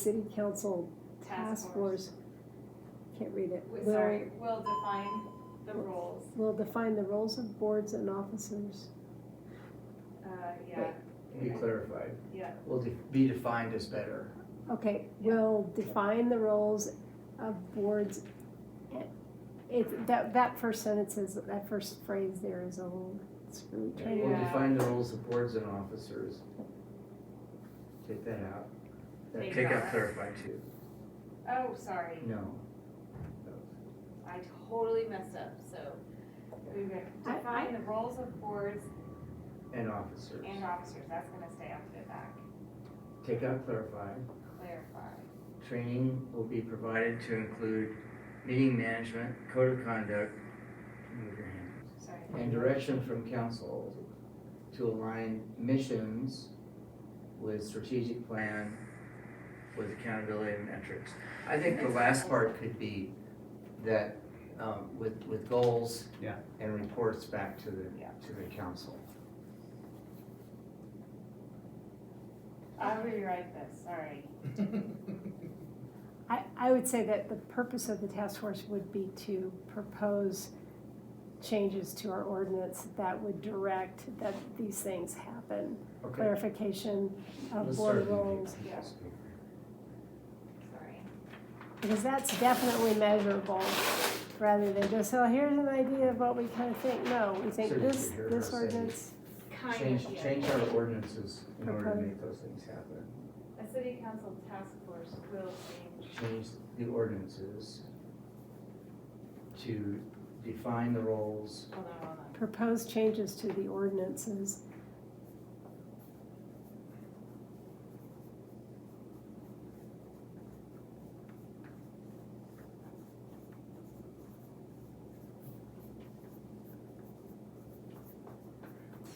City Council Task Task Force, can't read it, We- will, Sorry, will define the rules, will define the roles of boards and officers. uh, yeah, Be clarified, yeah, will de- be defined as better. Okay, will define the roles of boards. It, that, that first sentence is, that first phrase there is a little screwy. Will Yeah. define the roles of boards and officers. Take that out. Take it Take out out. clarify too. oh, sorry, No. I totally messed up, so. we re- I- Define the roles of boards And officers. and officers, that's gonna stay, I'll put it back, Take out clarify. clarify. Training will be provided to include meeting management, code of conduct, move your hand, Sorry. and direction from council to align missions with strategic plan, with accountability and metrics. I think the last part could be that, um, with, with goals. Yeah. And reports back to the, Yeah. to the council. I'll rewrite this, sorry. I, I would say that the purpose of the task force would be to propose changes to our ordinance that would direct that these things happen. Okay. Clarification of Let's uh, board start with roles. the yeah. council. Sorry. Because that's definitely measurable, rather than just, oh, here's an idea of what we kind of think, no, we think So you this, could hear this her say- ordinance, Kind Change, of, yeah. change our ordinances in order to Propose. make those things happen. A city council task force will change, change the ordinances to define the roles. hold on, hold on, propose changes to the ordinances.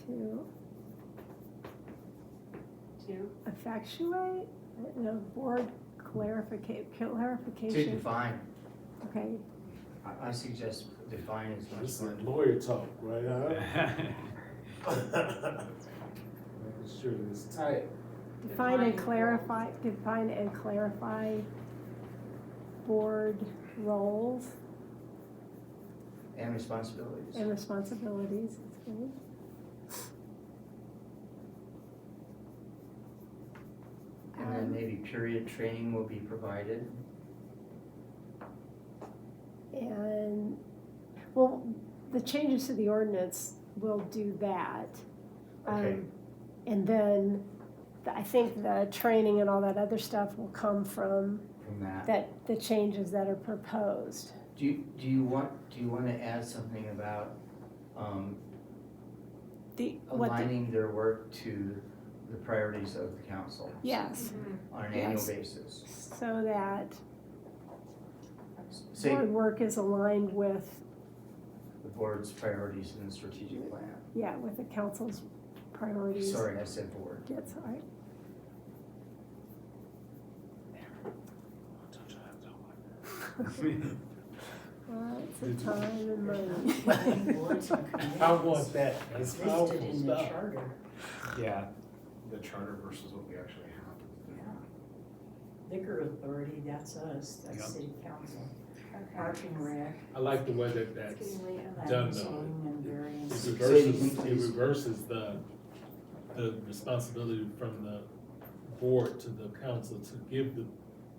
To two, effectuate, no, board clarification, To clarification, define, okay. I, I suggest define as much This as. is lawyer talk, right? huh? Making sure it's tight. Define Define and the clarify, define and clarify board roles And responsibilities. and responsibilities, that's good. And then Um, maybe period training will be provided. And, well, the changes to the ordinance will do that. Okay. Um, And then, the- I think the training and all that other stuff will come from From that, that, the changes that are proposed. do you, do you want, do you wanna add something about, um, The, what, the- aligning their work to the priorities of the council yes, Mm-hmm. on an annual Yes. basis? so that Say, board work is aligned with, the board's priorities in the strategic plan. yeah, with the council's priorities. Sorry, I said board. That's all right. Lots of time and I money. want that. That's powerful stuff. charter. Yeah. The charter versus what we actually Yeah. Liquor authority, that's us, Yep. that's city council. Park okay. and rec, I like the way that It's that's, getting late on that. Done, though. it licensing and various. reverses, it Please. reverses the, the responsibility from the board to the council to give the,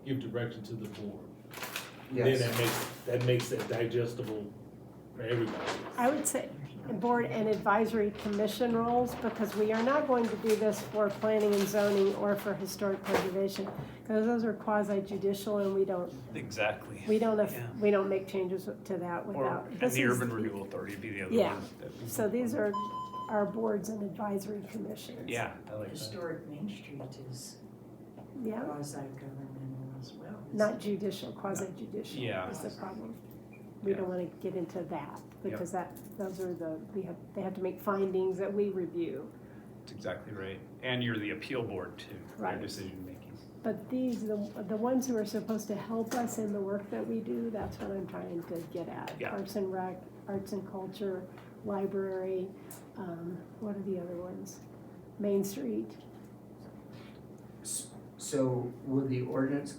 give direction to the board. Then Yes. that makes, that makes it digestible for everybody. I would say board and advisory commission roles, because we are not going to do this for planning and zoning or for historic preservation. Because those are quasi judicial and we don't, Exactly. we don't, af- Yeah. we don't make changes to that Or, without. and this the is- Urban Renewal Authority would be the other Yeah. one. that- So these are our boards and advisory commissions. Yeah, I like that. Historic Main Street is Yeah, quasi-governmental as well. isn't not it? judicial, quasi judicial Yeah. is the problem. We Yeah. don't wanna get into that, because that, those are the, we have, they have to make findings that we review. That's exactly right. And you're the appeal board too, Right. their decision making. But these, the, the ones who are supposed to help us in the work that we do, that's what I'm trying to get at. Yeah. Arts and rec, arts and culture, library, um, what are the other ones? Main Street, S- So would the ordinance